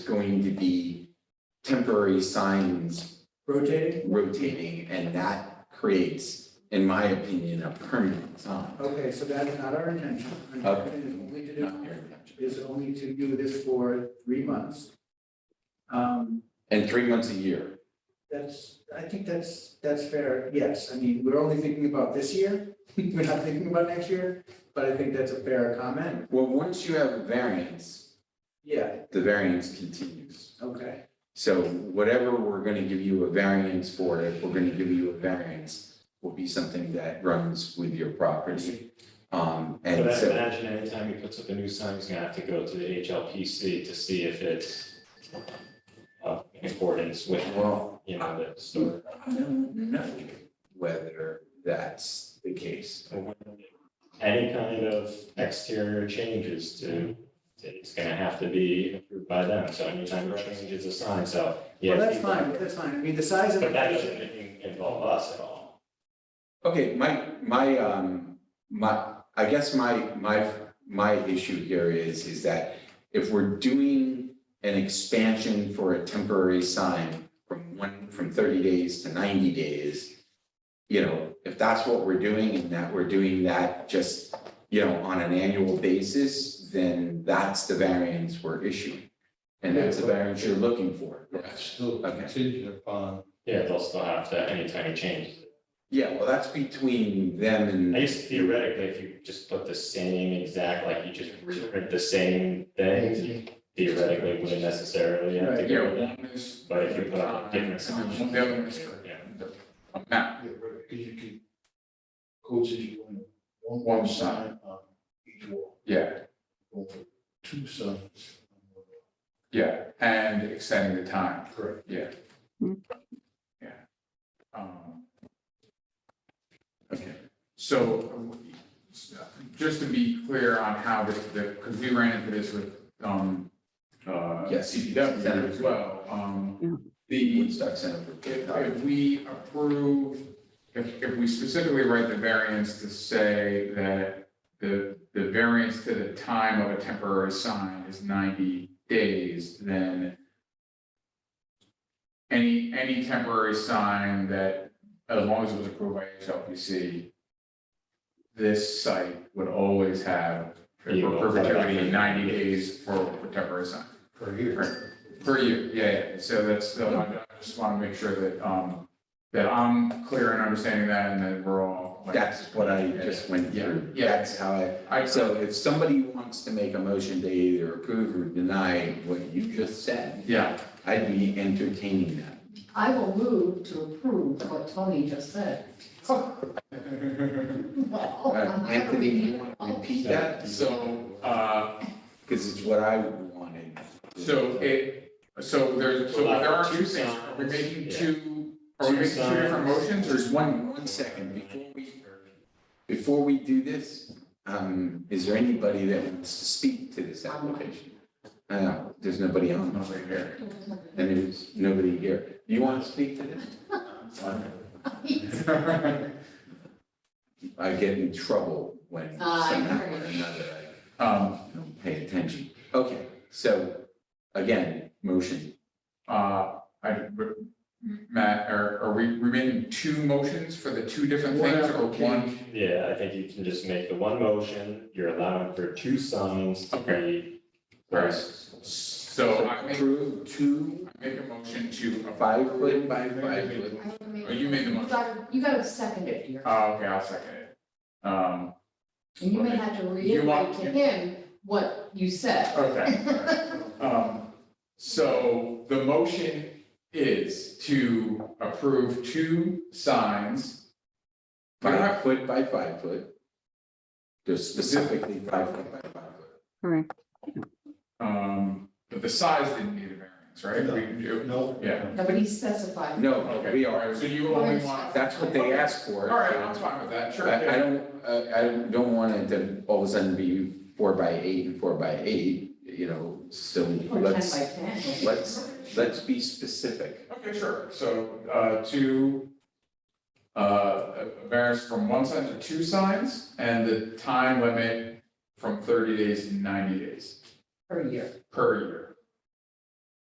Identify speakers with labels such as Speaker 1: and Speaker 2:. Speaker 1: going to be temporary signs
Speaker 2: Rotating?
Speaker 1: rotating, and that creates, in my opinion, a permanent sign.
Speaker 2: Okay, so that is not our intention. Our
Speaker 1: Okay.
Speaker 2: intention is only to do-
Speaker 1: Not your intention.
Speaker 2: Is only to do this for three months. Um,
Speaker 1: And three months a year,
Speaker 2: that's, I think that's, that's fair, yes. I mean, we're only thinking about this year. We're not thinking about next year, but I think that's a fair comment.
Speaker 1: well, once you have a variance,
Speaker 2: Yeah,
Speaker 1: the variance continues.
Speaker 2: okay,
Speaker 1: So whatever we're gonna give you a variance for, if we're gonna give you a variance, will be something that runs with your property. Um,
Speaker 3: But
Speaker 1: and
Speaker 3: I
Speaker 1: so,
Speaker 3: imagine anytime he puts up a new sign, he's gonna have to go to the HLPC to see if it's uh, in accordance with,
Speaker 1: well,
Speaker 3: you know, the store.
Speaker 1: I don't know whether that's the case.
Speaker 3: Any kind of exterior changes to, it's gonna have to be approved by them, so anytime he changes a sign, so. yeah,
Speaker 2: well, that's fine, that's fine. I mean, the size of.
Speaker 3: But that
Speaker 2: the
Speaker 3: doesn't involve us at all.
Speaker 1: Okay, my, my, um, my, I guess my, my, my issue here is, is that if we're doing an expansion for a temporary sign from one, from thirty days to ninety days, you know, if that's what we're doing and that we're doing that just, you know, on an annual basis, then that's the variance we're issuing. And that's the variance you're looking for.
Speaker 4: That's still
Speaker 1: Okay.
Speaker 4: contingent upon,
Speaker 3: Yeah, they'll still have to, anytime he changes.
Speaker 1: Yeah, well, that's between them and.
Speaker 3: I guess theoretically, if you just put the same exact, like you just reprint the same thing, you theoretically wouldn't necessarily have to
Speaker 1: Yeah,
Speaker 3: go with that.
Speaker 1: one is.
Speaker 3: But if you put on a different sign.
Speaker 1: And the other is
Speaker 3: Yeah.
Speaker 1: the a map.
Speaker 4: yeah, right, because you could codes issue one, one one sign on each wall,
Speaker 5: Yeah,
Speaker 4: or two signs.
Speaker 5: yeah, and extending the time,
Speaker 4: Correct.
Speaker 5: yeah. Yeah. Um, Okay, so um, just to be clear on how this, because we ran into this with, um, uh,
Speaker 1: Yes.
Speaker 5: CPW as well, um, the,
Speaker 1: Woodstock Center for
Speaker 5: if, if we approve, if, if we specifically write the variance to say that the, the variance to the time of a temporary sign is ninety days, then any, any temporary sign that, as long as it was approved by HLPC, this site would always have for
Speaker 3: You will.
Speaker 5: perpetuity ninety days for a temporary sign.
Speaker 4: Per year.
Speaker 5: Per year, yeah, yeah, so that's, so I I just want to make sure that, um, that I'm clear in understanding that and that we're all. like-
Speaker 1: That's what I just went
Speaker 5: Yeah,
Speaker 1: through.
Speaker 5: yeah.
Speaker 1: That's how I,
Speaker 5: I, so,
Speaker 1: so if somebody wants to make a motion to either approve or deny what you just said,
Speaker 5: yeah,
Speaker 1: I'd be entertaining that.
Speaker 6: I will move to approve what Tony just said.
Speaker 1: Uh,
Speaker 6: Well, I'm not
Speaker 1: Anthony, you
Speaker 6: reading
Speaker 1: want to
Speaker 6: it.
Speaker 1: repeat that?
Speaker 5: that, so, uh,
Speaker 1: Because it's what I wanted.
Speaker 5: so it, so there's, so there are two things, are we making two, are we making two different motions or
Speaker 1: There's
Speaker 5: is one?
Speaker 1: one, one second before we, before we do this, um, is there anybody that wants to speak to this application? Uh, there's nobody on over here. And there's nobody here. Do you want to speak to this? I get in trouble when
Speaker 6: Ah, I
Speaker 1: somehow or
Speaker 6: heard.
Speaker 1: another
Speaker 5: Um,
Speaker 1: I don't pay attention. Okay, so again, motion.
Speaker 5: uh, I, Matt, are, are we, we making two motions for the two different things or one?
Speaker 3: Yeah, I think you can just make the one motion, you're allowing for two signs to be.
Speaker 5: Right. So I make,
Speaker 1: Approve two
Speaker 5: I make a motion to. approve-
Speaker 1: five foot by five foot.
Speaker 6: I would make-
Speaker 5: Oh, you made the motion.
Speaker 6: gotta- You gotta second it here,
Speaker 5: Oh, okay, I'll second it. Um,
Speaker 6: and you may have to
Speaker 5: You want-
Speaker 6: reiterate to him what you said.
Speaker 5: okay. Um, so the motion is to approve two signs. We don't have-
Speaker 1: Five foot by five foot. Just specifically five foot by five foot.
Speaker 5: Um, but the size didn't need a variance, right?
Speaker 4: No.
Speaker 5: We can do.
Speaker 4: No.
Speaker 5: Yeah.
Speaker 6: Nobody specified.
Speaker 1: No,
Speaker 5: Okay,
Speaker 1: we
Speaker 5: all
Speaker 1: are,
Speaker 5: right, so you only want,
Speaker 1: that's what they asked for.
Speaker 5: all right, I'm fine with that, sure.
Speaker 1: I, I don't, uh, I, I don't want it to all of a sudden be four by eight and four by eight, you know, so
Speaker 6: Or ten by
Speaker 1: let's,
Speaker 6: ten.
Speaker 1: let's, let's be specific.
Speaker 5: Okay, sure, so, uh, two, uh, a variance from one sign to two signs, and the time limit from thirty days to ninety days
Speaker 6: Per year.
Speaker 5: per year.